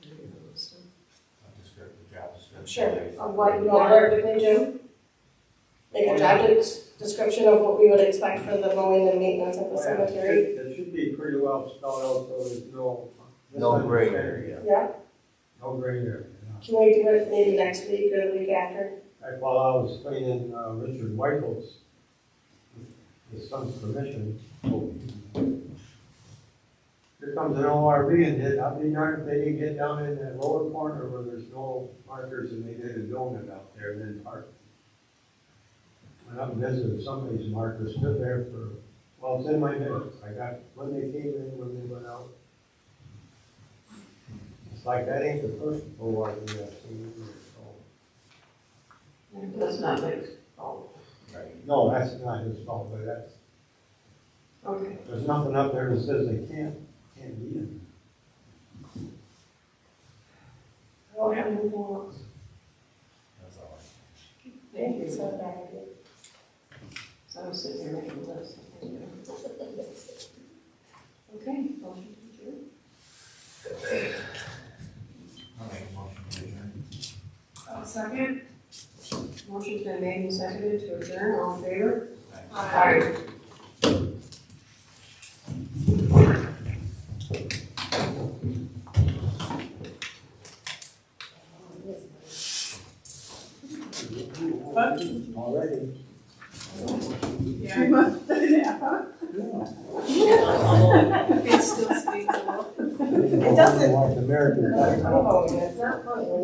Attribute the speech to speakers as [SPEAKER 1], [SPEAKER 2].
[SPEAKER 1] Sure, of what you automatically do. Like a job des- description of what we would expect for the mowing and maintenance of the cemetery,
[SPEAKER 2] It should be pretty well spelled out, so there's no.
[SPEAKER 3] No gray area.
[SPEAKER 1] yeah?
[SPEAKER 2] No gray area, yeah.
[SPEAKER 1] Can we do it maybe next week or the week after?
[SPEAKER 2] Like while I was cleaning, uh, Richard Michael's, his son's permission. Here comes an ORV and did, I'd be darned if they didn't get down in that lower corner where there's no markers and they did a donut out there and then parked. Went up and visited somebody's marker, stood there for, well, it's in my minutes, I got, when they came in, when they went out. It's like that ain't the first ORV I've seen, so.
[SPEAKER 4] That's not my fault.
[SPEAKER 2] No, that's not his fault, but that's,
[SPEAKER 4] Okay.
[SPEAKER 2] there's nothing up there that says they can't, can't be in.
[SPEAKER 1] I don't have anything else.
[SPEAKER 4] Thank you.
[SPEAKER 1] It's
[SPEAKER 4] So
[SPEAKER 1] not a bad idea.
[SPEAKER 4] I'm sitting here making a list. Okay, motion to adjourn. Uh, Second. Motion's been made and seconded to adjourn, all in favor? Aye.
[SPEAKER 2] Already.
[SPEAKER 5] Three months and a half.
[SPEAKER 4] It still speaks a little.
[SPEAKER 2] It
[SPEAKER 5] doesn't.
[SPEAKER 2] American.
[SPEAKER 1] Oh, yeah, it's not funny.